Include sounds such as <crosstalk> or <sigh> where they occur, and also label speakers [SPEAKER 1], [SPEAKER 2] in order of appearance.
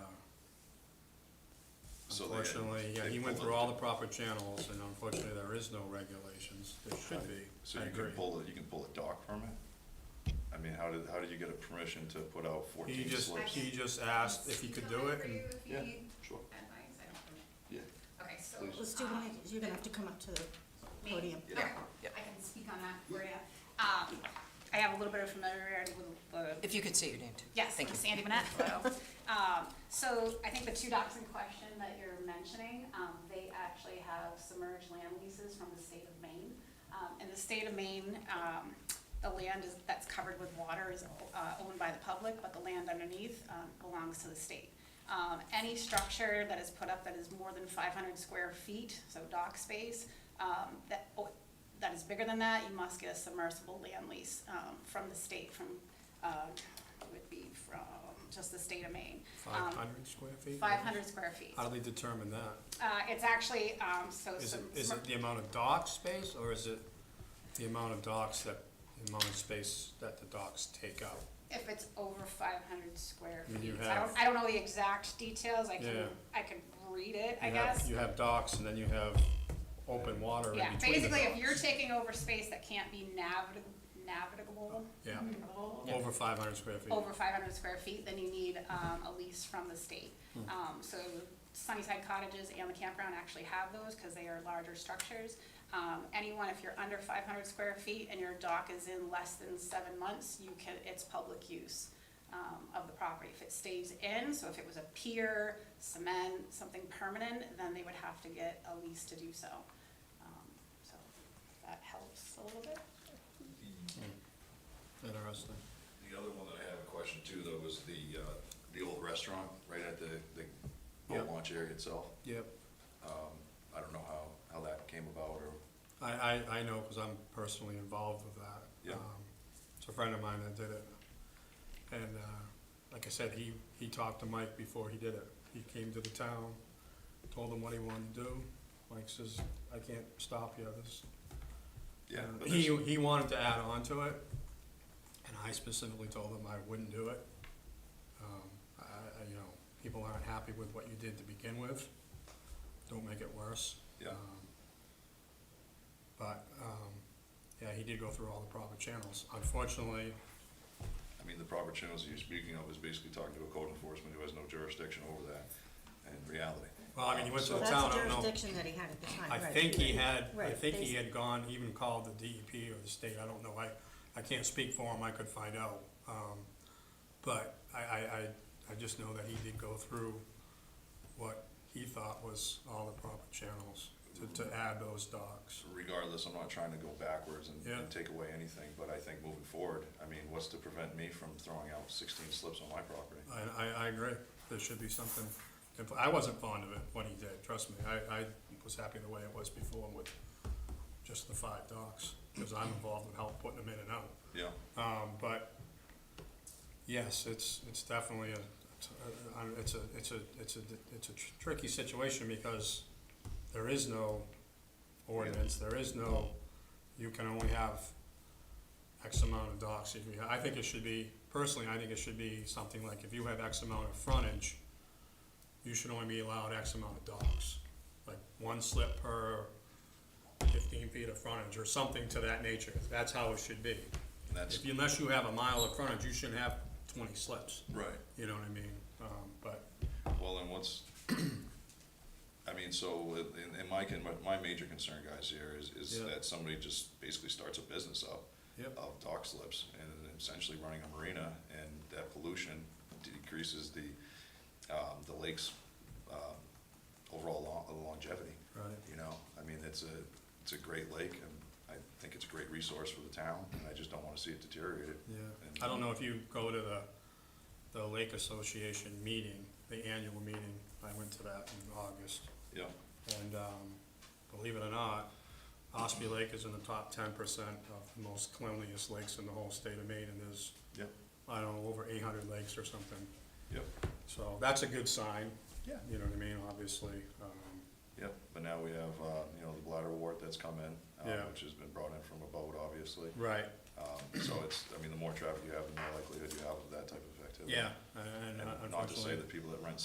[SPEAKER 1] So they-
[SPEAKER 2] Unfortunately, yeah,
[SPEAKER 1] they
[SPEAKER 2] he went
[SPEAKER 1] pull
[SPEAKER 2] through
[SPEAKER 1] it.
[SPEAKER 2] all the proper channels, and unfortunately, there is no regulations. There should be,
[SPEAKER 1] So
[SPEAKER 2] I
[SPEAKER 1] you can
[SPEAKER 2] agree.
[SPEAKER 1] pull, a- you can pull a dock permit? I mean, how did, how did you get a permission to put out
[SPEAKER 2] He
[SPEAKER 1] fourteen
[SPEAKER 2] just,
[SPEAKER 1] slips?
[SPEAKER 2] he just asked if he could do it, and
[SPEAKER 3] If you
[SPEAKER 1] Yeah,
[SPEAKER 3] need
[SPEAKER 1] sure,
[SPEAKER 3] advice, I don't know.
[SPEAKER 1] yeah.
[SPEAKER 3] Okay, so.
[SPEAKER 1] Please.
[SPEAKER 4] Let's do one, you're gonna have to come up to the
[SPEAKER 3] Me?
[SPEAKER 4] podium.
[SPEAKER 3] Okay, I can speak on that for you. Um, I have a little bit of familiarity with the
[SPEAKER 5] If you could say your name too.
[SPEAKER 3] Yes,
[SPEAKER 5] Thank
[SPEAKER 3] I'm
[SPEAKER 5] you.
[SPEAKER 3] Sandy Manetfo. Um, So I think the two docs in question that you're mentioning, um, they actually have submerged land leases from the state of Maine. Um, In the state of Maine, um, the land is, that's covered with water is uh, owned by the public, but the land underneath um, belongs to the state. Um, Any structure that is put up that is more than 500 square feet, so dock space, um, that, that is bigger than that, you must get a submersible land lease um, from the state, from, uh, it would be from just the state of Maine. Um,
[SPEAKER 2] five hundred square feet?
[SPEAKER 3] Five hundred square feet.
[SPEAKER 2] How do they determine that?
[SPEAKER 3] Uh, It's actually, um, so.
[SPEAKER 2] Is
[SPEAKER 3] some-
[SPEAKER 2] it, is it the amount of dock space, or is it the amount of docks that, the amount of space that the docks take up?
[SPEAKER 3] If it's over five hundred square
[SPEAKER 2] I mean, you
[SPEAKER 3] feet. I don't,
[SPEAKER 2] have-
[SPEAKER 3] I don't know the exact details, I can,
[SPEAKER 2] Yeah.
[SPEAKER 3] I can read it, I
[SPEAKER 2] You have-
[SPEAKER 3] guess.
[SPEAKER 2] You have docks, and then you have open water in
[SPEAKER 3] Yeah,
[SPEAKER 2] between the
[SPEAKER 3] basically, if
[SPEAKER 2] docks.
[SPEAKER 3] you're taking over space that can't be navig- navigable,
[SPEAKER 2] Yeah,
[SPEAKER 3] navigable,
[SPEAKER 2] over five hundred square feet.
[SPEAKER 3] Mm-hmm. over five hundred square feet, then you need, um, a lease from the state.
[SPEAKER 2] Hmm.
[SPEAKER 3] Um, so Sunnyside cottages and the campground actually have those, cause they are larger structures. Um, anyone, if you're under five hundred square feet and your dock is in less than seven months, you can, it's public use, um, of the property. If it stays in, so if it was a pier, cement, something permanent, then they would have to get a lease to do so. Um, So that helps a little bit.
[SPEAKER 2] Interesting.
[SPEAKER 1] The other one that I have a question too, though, was the, uh, the old restaurant right at the, the boat
[SPEAKER 2] Yep.
[SPEAKER 1] launch area itself.
[SPEAKER 2] Yep.
[SPEAKER 1] I don't know how, how that came about or,
[SPEAKER 2] I, I, I know, because I'm personally involved with that.
[SPEAKER 1] Yeah.
[SPEAKER 2] Um, It's a friend of mine that did it. And, uh, like I said, he, he talked to Mike before he did it. He came to the town, told him what he wanted to do. Mike says, I can't stop you, this.
[SPEAKER 1] yeah.
[SPEAKER 2] And
[SPEAKER 1] but
[SPEAKER 2] He,
[SPEAKER 1] there's-
[SPEAKER 2] he wanted to add on to it, and I specifically told him I wouldn't do it. Um, I, I, you know, people aren't happy with what you did to begin with. Don't make it worse.
[SPEAKER 1] Yeah,
[SPEAKER 2] Um, But, um, yeah, he did go through all the proper channels. Unfortunately,
[SPEAKER 1] I mean, the proper channels you're speaking of is basically talking to a code enforcement who has no jurisdiction over that in reality.
[SPEAKER 2] well, I mean, he went to the
[SPEAKER 1] So-
[SPEAKER 4] That's
[SPEAKER 2] town, I
[SPEAKER 4] the
[SPEAKER 2] don't know.
[SPEAKER 4] jurisdiction that he had at the time,
[SPEAKER 2] I
[SPEAKER 4] right.
[SPEAKER 2] think he had, I
[SPEAKER 4] Right,
[SPEAKER 2] think
[SPEAKER 4] they-
[SPEAKER 2] he had gone, even called the DEP or the state, I don't know, I, I can't speak for him, I could find out. Um, But I, I, I, I just know that he did go through what he thought was all the proper channels to, to add those docks.
[SPEAKER 1] regardless, I'm not trying to go backwards and,
[SPEAKER 2] Yeah.
[SPEAKER 1] and take away anything, but I think moving forward, I mean, what's to prevent me from throwing out sixteen slips on my property?
[SPEAKER 2] I, I, I agree, there should be something, in pl- I wasn't fond of it when he did, trust me, I, I was happy the way it was before with just the five docks, because I'm involved in help putting them in and out.
[SPEAKER 1] Yeah,
[SPEAKER 2] Um, but, yes, it's, it's definitely a, it's a- I don't- it's a, it's a, it's a, it's a tr- tricky situation because there is no ordinance, there is no, you can only have X amount of docks. If you- I think it should be, personally, I think it should be something like if you have X amount of frontage, you should only be allowed X amount of docks, like one slip per fifteen feet of frontage or something to that nature. That's how it should be.
[SPEAKER 1] and that's,
[SPEAKER 2] If you, unless you have a mile of frontage, you shouldn't have twenty slips,
[SPEAKER 1] right,
[SPEAKER 2] you know what I mean? Um, but,
[SPEAKER 1] well, then what's, <clears throat> I mean, so, in, in my, con- my, my major concern, guys, here is, is
[SPEAKER 2] Yeah.
[SPEAKER 1] that somebody just basically starts a business up
[SPEAKER 2] Yep.
[SPEAKER 1] of dock slips and essentially running a marina, and that pollution decreases the, um, the lake's, um, overall lo- longevity.
[SPEAKER 2] right,
[SPEAKER 1] You know, I mean, it's a, it's a great lake, and I think it's a great resource for the town, and I just don't wanna see it deteriorated.
[SPEAKER 2] yeah.
[SPEAKER 1] And-
[SPEAKER 2] I don't know if you go to the, the Lake Association meeting, the annual meeting, I went to that in August.
[SPEAKER 1] Yeah,
[SPEAKER 2] And, um, believe it or not, Ospey Lake is in the top ten percent of the most cleanliest lakes in the whole state of Maine, and there's,
[SPEAKER 1] yep,
[SPEAKER 2] I don't know, over eight hundred lakes or something.
[SPEAKER 1] yep,
[SPEAKER 2] So that's a good sign.
[SPEAKER 1] Yeah.
[SPEAKER 2] You know what I mean, obviously, um,
[SPEAKER 1] yep, but now we have, uh, you know, the bladder wart that's come in, uh,
[SPEAKER 2] Yeah.
[SPEAKER 1] which has been brought in from a boat, obviously.
[SPEAKER 2] right,
[SPEAKER 1] Um, so it's, I mean, the more traffic you have, the more likelihood you have of that type of activity.
[SPEAKER 2] yeah, and uh,
[SPEAKER 1] And
[SPEAKER 2] unfortunately.
[SPEAKER 1] not to say that people that rent